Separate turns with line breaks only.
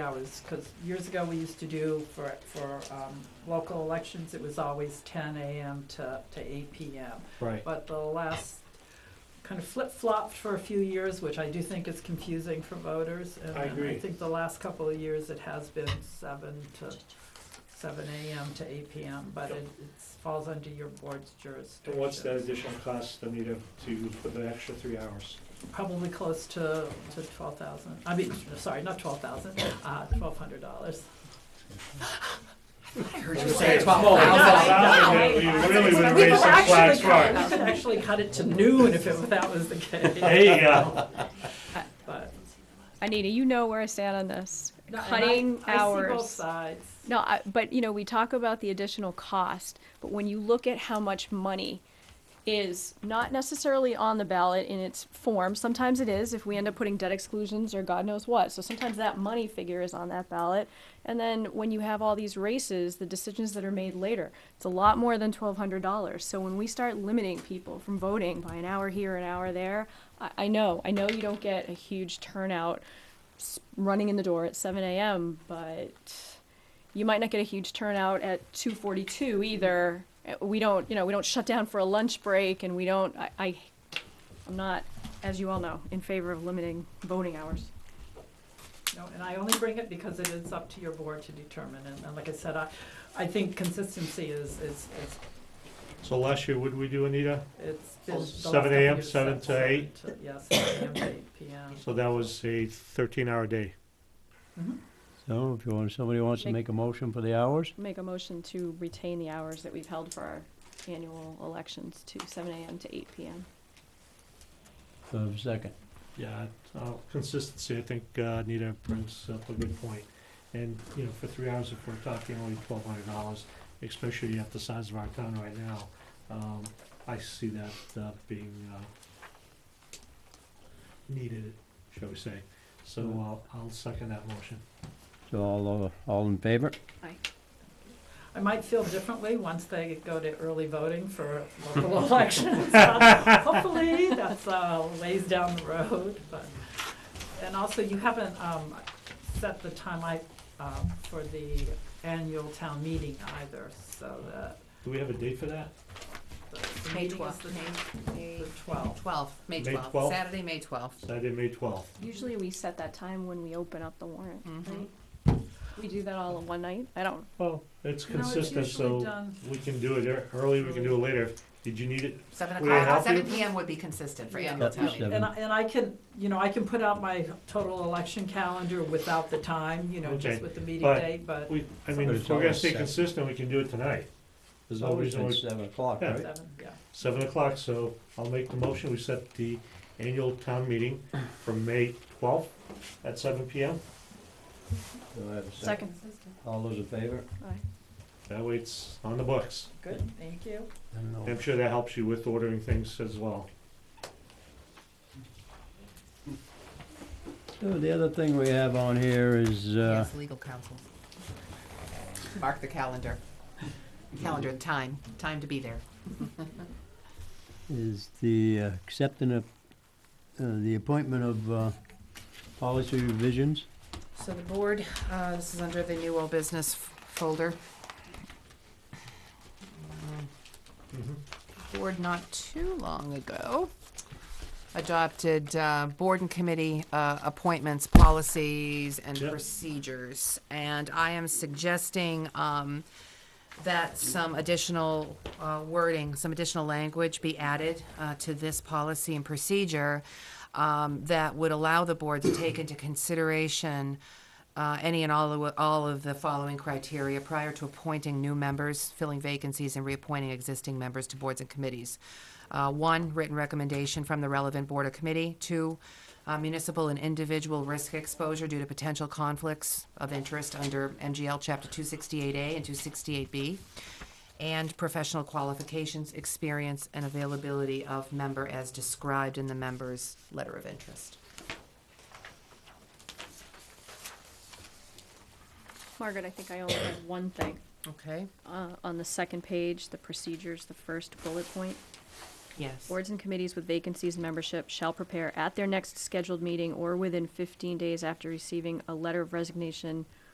hours, because years ago, we used to do for, for um, local elections, it was always ten AM to, to eight PM.
Right.
But the last kind of flip-flopped for a few years, which I do think is confusing for voters. and-
I
And I
agree.
think the last couple of years, it has been seven to, seven AM to eight PM, but
Yep.
it it's- falls under your board's jurisdiction.
And what's that additional cost, Anita, to put the extra three hours?
Probably close to, to twelve thousand, I mean, sorry, not twelve thousand, uh, twelve hundred dollars.
I heard
you
you
say
say
Oh,
twelve
I know, I
$12,000,
thousand.
know.
we really would
We
raise
could
some
actually
flags
cut-
flag.
We could actually cut it to noon if it, if that was the case.
There you go.
But,
Anita, you know where I stand on this.
no, and I-
Cutting
I see both
hours.
sides.
No, I, but you know, we talk about the additional cost, but when you look at how much money is not necessarily on the ballot in its form, sometimes it is if we end up putting debt exclusions or God knows what. So sometimes that money figure is on that ballot. And then when you have all these races, the decisions that are made later, it's a lot more than $1,200. So when we start limiting people from voting by an hour here, an hour there, I, I know, I know you don't get a huge turnout s- running in the door at 7 a.m., but you might not get a huge turnout at 2:42 either. Uh, We don't, you know, we don't shut down for a lunch break, and we don't. I, I I'm not, as you all know, in favor of limiting voting hours.
No, and I only bring it because it is up to your board to determine, and, and like I said, I, I think consistency is, is, is,
So last year, what did we do, Anita?
it's been. the last
7
couple
a.m.,
years,
7 to 8?
Yeah, seven AM to eight PM.
So that was a thirteen-hour day.
So if you want, somebody wants to
Make-
make a motion for the hours,
Make a motion to retain the hours that we've held for our annual elections to 7 a.m. to 8 p.m.
uh, second.
Yeah, uh, consistency, I think uh, Anita brings up a good point. And, you know, for three hours, if we're talking only twelve hundred dollars, especially at the size of our town right now, um, I see that uh, being uh, needed, shall we say. So uh, I'll second that motion.
So all, uh, all in favor?
I might feel differently once they go to early voting for local elections. Hopefully, that's uh, ways down the road, but, and also, you haven't um, set the time I, uh, for the annual town meeting either, so that.
Do we have a date for that?
the- the
May
meeting is
twelfth,
the-
May,
The twelfth.
twelfth, May
May
twelfth,
12th.
Saturday, May twelfth.
Saturday, May twelfth.
Usually we set that time when we open up the warrant.
Mhm.
Right? We do that all in one night. I don't.
Well, it's
No, it's
consistent,
usually
so
done-
we can do it ear- early, we can do it later. Did you need it?
Seven
Would it help
o'clock, seven
you?
PM would be consistent for
Yeah.
annual
Yep,
town meeting.
seven.
And I, and I can, you know, I can put out my total election calendar without the time, you know,
Okay,
just with the meeting
but
date, but
We, I mean,
But
if
it's
we're gonna
always
stay
set.
consistent, we can do it tonight.
There's
No
always
reason
been
we-
seven o'clock,
Yeah.
right?
seven, yeah.
seven o'clock, so I'll make the motion, we set the annual town meeting for May twelfth at seven P M.
Do I have a second?
Second.
All those in favor?
Aye.
That way it's on the books.
Good, thank you.
I'm sure that helps you with ordering things as well.
So the other thing we have on here is, uh,
Yes, legal counsel. Mark the calendar. Calendar, time, time to be there.
is the uh, accepting of, uh, the appointment of, uh, policy revisions.
So the board, uh, this is under the new old business f- folder. Um, board not too long ago adopted uh, board and committee uh, appointments, policies, and
Yep.
procedures. And I am suggesting um, that some additional uh, wording, some additional language be added uh, to this policy and procedure um, that would allow the board to take into consideration uh, any and all of, all of the following criteria prior to appointing new members, filling vacancies, and reappointing existing members to boards and committees. Uh, one, written recommendation from the relevant board or committee. Two, uh, municipal and individual risk exposure due to potential conflicts of interest under MGL Chapter 268A and 268B. And professional qualifications, experience, and availability of member as described in the member's letter of interest.
Margaret, I think I only have one thing.
Okay.
uh, on the second page, the procedures, the first bullet point.
Yes.
Boards and committees with vacancies and membership shall prepare at their next scheduled meeting or within fifteen days after receiving a letter of resignation